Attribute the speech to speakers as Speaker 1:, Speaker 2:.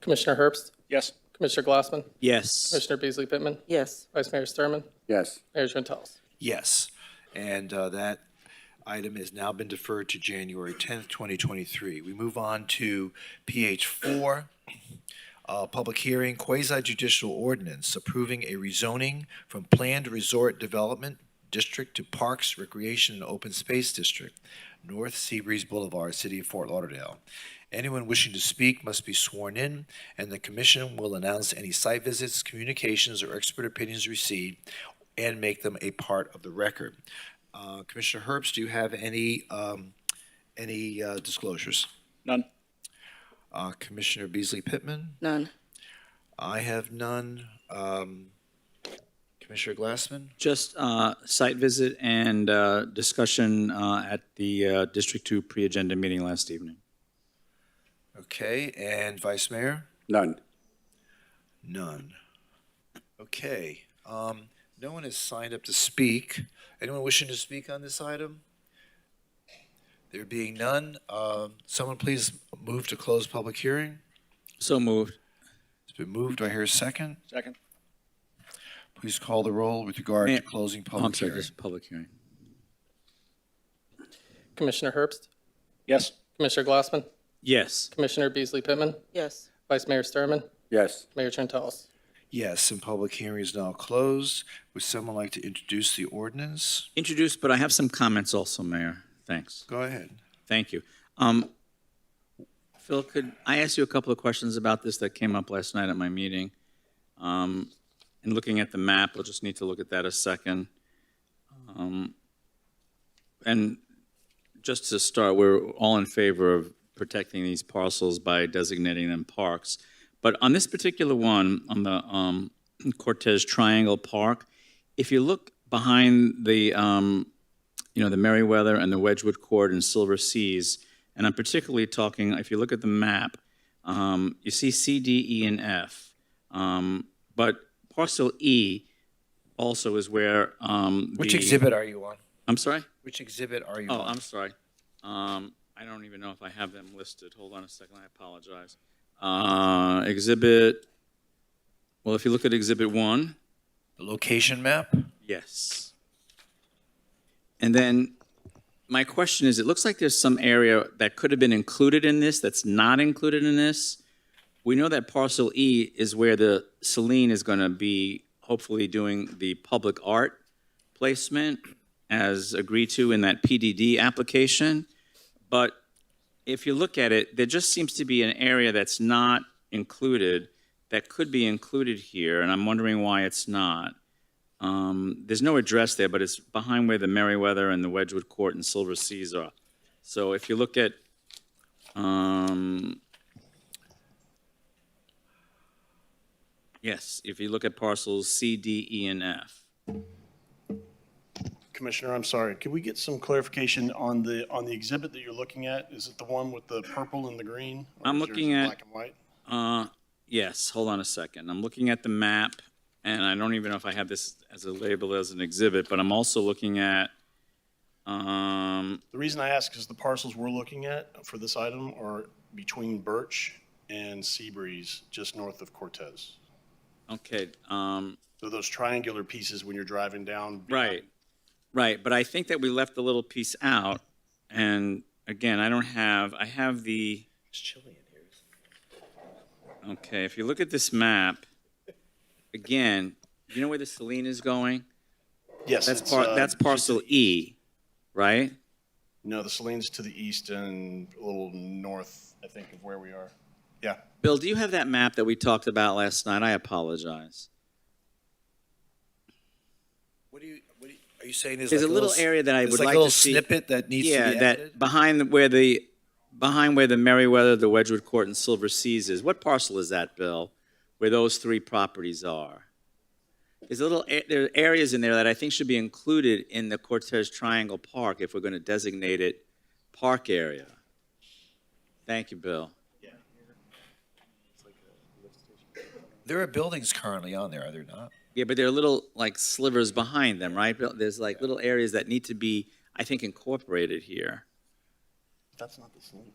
Speaker 1: Commissioner Herbst,
Speaker 2: Yes.
Speaker 1: Commissioner Glassman,
Speaker 3: Yes.
Speaker 1: Commissioner Beasley Pittman,
Speaker 4: yes,
Speaker 1: Vice Mayor Sturman,
Speaker 5: yes,
Speaker 1: Mayor Trentalles.
Speaker 6: Yes. And uh, that item has now been deferred to January 10th, 2023. We move on to PH 4, uh, public hearing, quasi judicial ordinance approving a rezoning from planned resort development district to Parks, Recreation, and Open Space District, North Seabreeze Boulevard, City of Fort Lauderdale. Anyone wishing to speak must be sworn in, and the commission will announce any site visits, communications, or expert opinions received and make them a part of the record. Uh, Commissioner Herbst, do you have any, um, any uh, disclosures?
Speaker 2: None.
Speaker 6: Uh, Commissioner Beasley Pittman?
Speaker 4: none,
Speaker 6: I have none. Um, Commissioner Glassman?
Speaker 3: Just uh, site visit and uh, discussion uh, at the uh, District 2 pre-agenda meeting last evening.
Speaker 6: Okay, and Vice Mayor?
Speaker 5: none.
Speaker 6: None. Okay, um, no one has signed up to speak. Anyone wishing to speak on this item? There being none, um, someone please move to close public hearing.
Speaker 3: So moved.
Speaker 6: It's been moved. Do I hear a second?
Speaker 2: Second.
Speaker 6: Please call the roll with regard
Speaker 3: Mayor-
Speaker 6: to closing
Speaker 3: I'm
Speaker 6: public
Speaker 3: sorry,
Speaker 6: hearing.
Speaker 3: this is public hearing.
Speaker 1: Commissioner Herbst,
Speaker 2: Yes.
Speaker 1: Commissioner Glassman,
Speaker 3: Yes.
Speaker 1: Commissioner Beasley Pittman,
Speaker 4: yes,
Speaker 1: Vice Mayor Sturman,
Speaker 5: Yes,
Speaker 1: Mayor Trentalles.
Speaker 6: Yes, and public hearing is now closed. Would someone like to introduce the ordinance?
Speaker 3: Introduced, but I have some comments also, Mayor. Thanks.
Speaker 6: Go ahead.
Speaker 3: Thank you. Um, Phil, could I ask you a couple of questions about this that came up last night at my meeting? Um, And looking at the map, we'll just need to look at that a second. Um, And just to start, we're all in favor of protecting these parcels by designating them parks. But on this particular one, on the um, Cortez Triangle Park, if you look behind the, um, you know, the Meriwether and the Wedgewood Court and Silver Seas. And I'm particularly talking, if you look at the map, um, you see C, D, E, and F. Um, but parcel E also is where um,
Speaker 6: Which
Speaker 3: the-
Speaker 6: exhibit are you on?
Speaker 3: I'm sorry.
Speaker 6: Which exhibit are you
Speaker 3: Oh,
Speaker 6: on?
Speaker 3: I'm sorry. Um, I don't even know if I have them listed. Hold on a second. I apologize. Uh, exhibit. Well, if you look at Exhibit One.
Speaker 6: The location map?
Speaker 3: Yes. And then my question is, it looks like there's some area that could have been included in this that's not included in this. We know that parcel E is where the Celine is going to be hopefully doing the public art placement as agreed to in that PDD application. But if you look at it, there just seems to be an area that's not included that could be included here, and I'm wondering why it's not. Um, there's no address there, but it's behind where the Meriwether and the Wedgewood Court and Silver Seas are. So if you look at, um, yes, if you look at parcels C, D, E, and F.
Speaker 7: Commissioner, I'm sorry, could we get some clarification on the, on the exhibit that you're looking at? Is it the one with the purple and the green? Or
Speaker 3: I'm
Speaker 7: is yours
Speaker 3: looking at-
Speaker 7: Black and white?
Speaker 3: Uh, yes, hold on a second. I'm looking at the map, and I don't even know if I have this as a label as an exhibit, but I'm also looking at, um,
Speaker 7: The reason I ask is the parcels we're looking at for this item are between Birch and Seabreeze, just north of Cortez.
Speaker 3: okay, um,
Speaker 7: So those triangular pieces when you're driving down.
Speaker 3: Right, right, but I think that we left the little piece out, and again, I don't have, I have the. It's chilly in here. Okay, if you look at this map, again, you know where the Celine is going?
Speaker 7: Yes.
Speaker 3: That's
Speaker 7: it's,
Speaker 3: par,
Speaker 7: uh,
Speaker 3: that's parcel E, right?
Speaker 7: No, the Saline's to the east and a little north, I think, of where we are. Yeah.
Speaker 3: Bill, do you have that map that we talked about last night? I apologize.
Speaker 6: What do you, what do you, are you saying is
Speaker 3: There's
Speaker 6: like
Speaker 3: a little
Speaker 6: s-
Speaker 3: area that I
Speaker 6: it's
Speaker 3: would
Speaker 6: like
Speaker 3: like
Speaker 6: a
Speaker 3: to
Speaker 6: little
Speaker 3: see.
Speaker 6: snippet that needs to
Speaker 3: Yeah,
Speaker 6: be added?
Speaker 3: that, behind the- where the, behind where the Meriwether, the Wedgewood Court, and Silver Seas is. What parcel is that, Bill, where those three properties are? There's a little, a- there are areas in there that I think should be included in the Cortez Triangle Park if we're going to designate it park area. Thank you, Bill.
Speaker 6: There are buildings currently on there, are there not?
Speaker 3: Yeah, but there are little, like slivers behind them, right? Bill? There's like little areas that need to be, I think, incorporated here.
Speaker 7: That's not the Saline.